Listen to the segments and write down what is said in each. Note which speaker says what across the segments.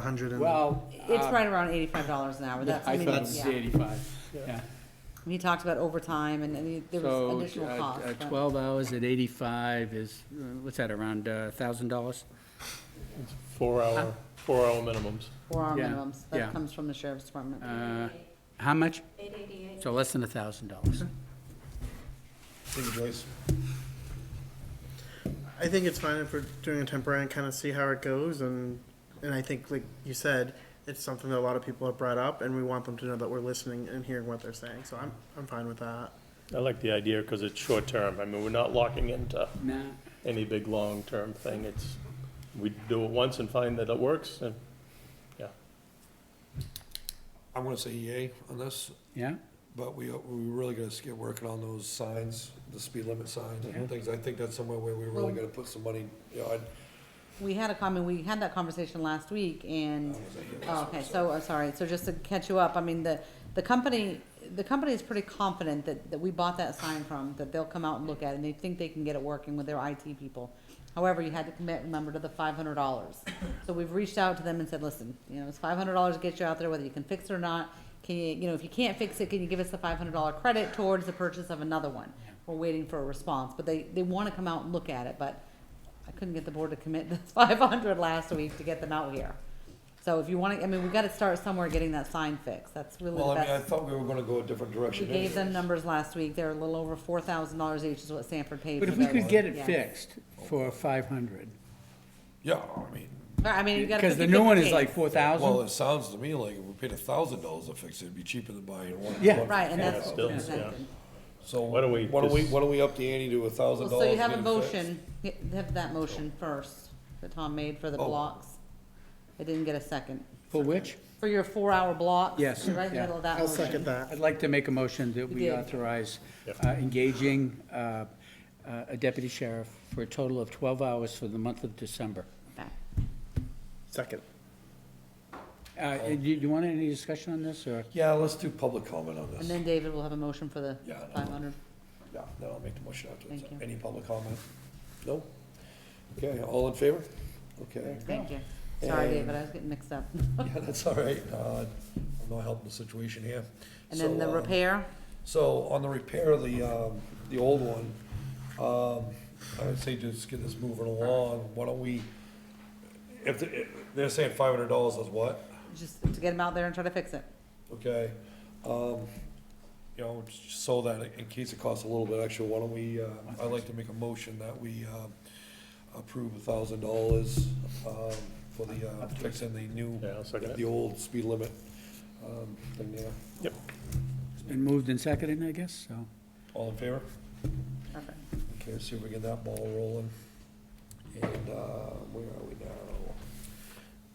Speaker 1: hundred and?
Speaker 2: Well.
Speaker 3: It's
Speaker 2: uh,
Speaker 3: right around eighty-five dollars an hour,
Speaker 2: Yeah,
Speaker 3: that's, I
Speaker 2: I
Speaker 3: mean,
Speaker 2: thought it was
Speaker 3: yeah.
Speaker 2: eighty-five, yeah.
Speaker 3: He talked about overtime and, and there
Speaker 2: So,
Speaker 3: was additional
Speaker 2: uh,
Speaker 3: cost.
Speaker 2: uh,
Speaker 3: but-
Speaker 2: Twelve hours at eighty-five is, uh, what's that, around a thousand dollars?
Speaker 4: Four hour, four hour minimums.
Speaker 3: Four hour
Speaker 2: Yeah,
Speaker 3: minimums,
Speaker 2: yeah.
Speaker 3: that comes from the sheriff's department.
Speaker 2: Uh, How much? Eight eighty-eight. So less than a thousand dollars.
Speaker 5: Thank you, Joyce.
Speaker 1: I think it's fine if we're doing a temporary and kind of see how it goes, and and I think like you said, it's something that a lot of people have brought up, and we want them to know that we're listening and hearing what they're saying. So I'm I'm fine with that.
Speaker 4: I like the idea because it's short term. I mean, we're not locking into
Speaker 2: Nah,
Speaker 4: any big long term thing. It's, we do it once and find that it works and, yeah.
Speaker 5: I'm gonna say yay on this,
Speaker 2: yeah?
Speaker 5: but we, we really gotta get working on those signs, the speed limit signs and things. I think that's somewhere where we really gotta put some money, you know, I,
Speaker 3: We had a comment, we had that conversation last week and,
Speaker 5: I was like, yeah,
Speaker 3: oh, okay, so, I'm sorry, so just to catch you up, I mean, the, the company, the company is pretty confident that, that we bought that sign from, that they'll come out and look at it, and they think they can get it working with their IT people. However, you had to commit, remember, to the five hundred dollars. So we've reached out to them and said, listen, you know, it's five hundred dollars to get you out there, whether you can fix it or not. Can you, you know, if you can't fix it, can you give us the five hundred dollar credit towards the purchase of another one? We're waiting for a response, but they, they wanna come out and look at it, but I couldn't get the board to commit this five hundred last week to get them out here. So if you wanna, I mean, we gotta start somewhere getting that sign fixed, that's really
Speaker 5: Well,
Speaker 3: the
Speaker 5: I mean, I
Speaker 3: best.
Speaker 5: thought we were gonna go a different
Speaker 3: We
Speaker 5: direction.
Speaker 3: gave them
Speaker 5: anyways.
Speaker 3: numbers last week, they're a little over four thousand dollars each is what Sanford paid for
Speaker 2: But
Speaker 3: their.
Speaker 2: if we could
Speaker 3: one.
Speaker 2: get it
Speaker 3: Yeah.
Speaker 2: fixed for five hundred,
Speaker 5: Yeah, I mean,
Speaker 3: I mean, you gotta.
Speaker 2: because the
Speaker 3: 50-50
Speaker 2: new one is
Speaker 3: case.
Speaker 2: like four
Speaker 5: well,
Speaker 2: thousand.
Speaker 5: it sounds to me like if we paid a thousand dollars to fix it, it'd be cheaper than buying one.
Speaker 2: Yeah.
Speaker 5: one for
Speaker 3: Right, and
Speaker 5: $4.
Speaker 3: that's.
Speaker 4: still, yeah.
Speaker 3: presented.
Speaker 5: So,
Speaker 4: Why don't we
Speaker 5: why don't we,
Speaker 4: just-
Speaker 5: why don't we up the ante to a thousand
Speaker 3: Well,
Speaker 5: dollars?
Speaker 3: so you have
Speaker 5: get
Speaker 3: a
Speaker 5: it fixed?
Speaker 3: motion, Yeah, have that motion first, that Tom made for the
Speaker 5: Oh.
Speaker 3: blocks. I didn't get a second.
Speaker 2: For which?
Speaker 3: For your four-hour block?
Speaker 2: Yes,
Speaker 3: Right in the
Speaker 2: yeah.
Speaker 3: middle of that
Speaker 1: I'll
Speaker 3: motion.
Speaker 1: second that.
Speaker 2: I'd like to make a motion that
Speaker 3: You
Speaker 2: we
Speaker 3: did.
Speaker 2: authorize
Speaker 4: Yep.
Speaker 2: uh, engaging uh, uh, a deputy sheriff for a total of twelve hours for the month of December.
Speaker 3: Okay.
Speaker 1: Second.
Speaker 2: Uh, Do you do you want any discussion on this, or?
Speaker 5: Yeah, let's do public comment on
Speaker 3: And
Speaker 5: this.
Speaker 3: then David will have a motion for the
Speaker 5: Yeah, I know.
Speaker 3: five hundred.
Speaker 5: Yeah, then I'll make the motion afterwards.
Speaker 3: Thank you.
Speaker 5: Any public comment? No? Okay, all in favor? Okay.
Speaker 3: Thank you. Sorry,
Speaker 5: And-
Speaker 3: David, I was getting mixed up.
Speaker 5: Yeah, that's all right. Uh, I'm not helping the situation here.
Speaker 3: And then the
Speaker 5: So, um,
Speaker 3: repair,
Speaker 5: So on the repair of the, um, the old one, um, I would say just get this moving along. Why don't we, if, the- if they're saying five hundred dollars is what?
Speaker 3: just to get him out there and try to fix it.
Speaker 5: Okay, um, you know, just so that in case it costs a little bit extra, why don't we, uh, I'd like to make a motion that we, um, approve a thousand dollars, um, for the, uh, fixing the new,
Speaker 4: Yeah, I'll second it.
Speaker 5: the old speed limit, um, thing there.
Speaker 4: Yep.
Speaker 2: It's been moved and seconded, I guess, so.
Speaker 5: All in favor?
Speaker 3: Perfect.
Speaker 5: Okay, see if we get that ball rolling. And, uh, where are we now?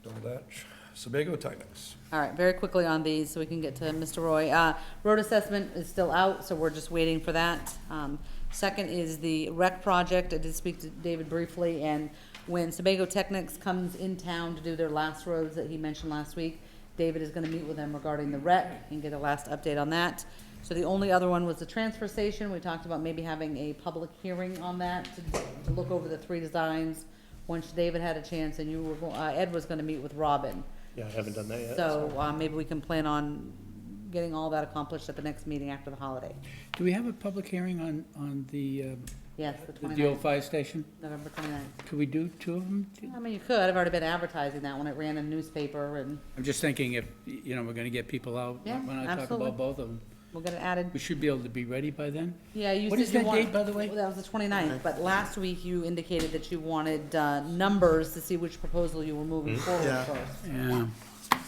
Speaker 5: Double Dutch, Sebago Technics.
Speaker 3: All right, very quickly on these, so we can get to Mr. Roy. Uh, road assessment is still out, so we're just waiting for that. Um, second is the rec project. I did speak to David briefly, and when Sebago Technics comes in town to do their last roads that he mentioned last week, David is gonna meet with them regarding the rec and get a last update on that. So the only other one was the transfer station. We talked about maybe having a public hearing on that to, to look over the three designs. Once David had a chance and you were, go- uh, Ed was gonna meet with Robin.
Speaker 4: Yeah, I haven't done that yet.
Speaker 3: So, uh, maybe we can plan on getting all that accomplished at the next meeting after the holiday.
Speaker 2: Do we have a public hearing on, on the, uh,
Speaker 3: Yes,
Speaker 2: the
Speaker 3: the
Speaker 2: old
Speaker 3: twenty-ninth,
Speaker 2: fire station?
Speaker 3: November twenty-ninth.
Speaker 2: Could we do two of them?
Speaker 3: I mean, you could, I've already been advertising that one, it ran in newspaper, and
Speaker 2: I'm just thinking if, you know, we're gonna get people out
Speaker 3: Yeah,
Speaker 2: when I talk
Speaker 3: absolutely.
Speaker 2: about both of them.
Speaker 3: we'll get it added.
Speaker 2: We should be able to be ready by then.
Speaker 3: Yeah, you
Speaker 2: What
Speaker 3: said
Speaker 2: is
Speaker 3: you
Speaker 2: that
Speaker 3: want-
Speaker 2: date, by the way?
Speaker 3: Well, That was the twenty-ninth, but last week you indicated that you wanted, uh, numbers to see which proposal you were
Speaker 2: Hmm?
Speaker 3: moving forward
Speaker 1: Yeah.
Speaker 3: first.
Speaker 2: Yeah,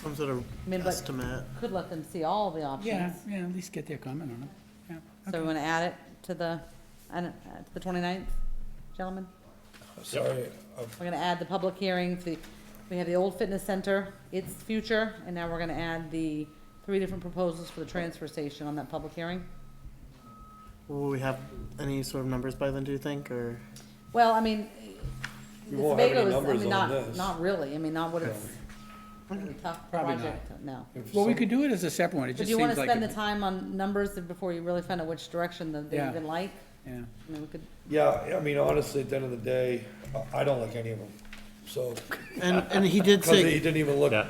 Speaker 1: Some sort of
Speaker 3: mean, but-
Speaker 1: estimate.
Speaker 3: Could let them see all the
Speaker 2: yeah,
Speaker 3: options.
Speaker 2: yeah, at least get their comment on it. Yeah,
Speaker 3: So we
Speaker 2: okay.
Speaker 3: wanna add it to the, I don't- uh, to the twenty-ninth, gentlemen?
Speaker 5: I'm sorry, I'm
Speaker 3: We're gonna add the public hearing, for the, we have the old fitness center, its future, and now we're gonna add the three different proposals for the transfer station on that public hearing.
Speaker 1: Will we have any sort of numbers by then? Do you think, or
Speaker 3: Well, I mean, the
Speaker 5: We won't have any
Speaker 3: Sebago is, I
Speaker 5: numbers
Speaker 3: mean,
Speaker 5: on
Speaker 3: not,
Speaker 5: this.
Speaker 3: not really, I mean, not what it's, a tough
Speaker 2: Probably not.
Speaker 3: project, no.
Speaker 5: if
Speaker 2: Well, we
Speaker 5: some-
Speaker 2: could do it as a separate one, it
Speaker 3: But
Speaker 2: just
Speaker 3: do you wanna
Speaker 2: seems like.
Speaker 3: spend the
Speaker 2: it-
Speaker 3: time on numbers before you really find out which direction that they
Speaker 2: Yeah.
Speaker 3: even like?
Speaker 2: Yeah,
Speaker 3: I mean, we could,
Speaker 5: Yeah, I mean, honestly, at the end of the day, I- I don't like any of them, so,
Speaker 1: and and he did
Speaker 5: because
Speaker 1: say
Speaker 5: he didn't even look,
Speaker 4: Yeah.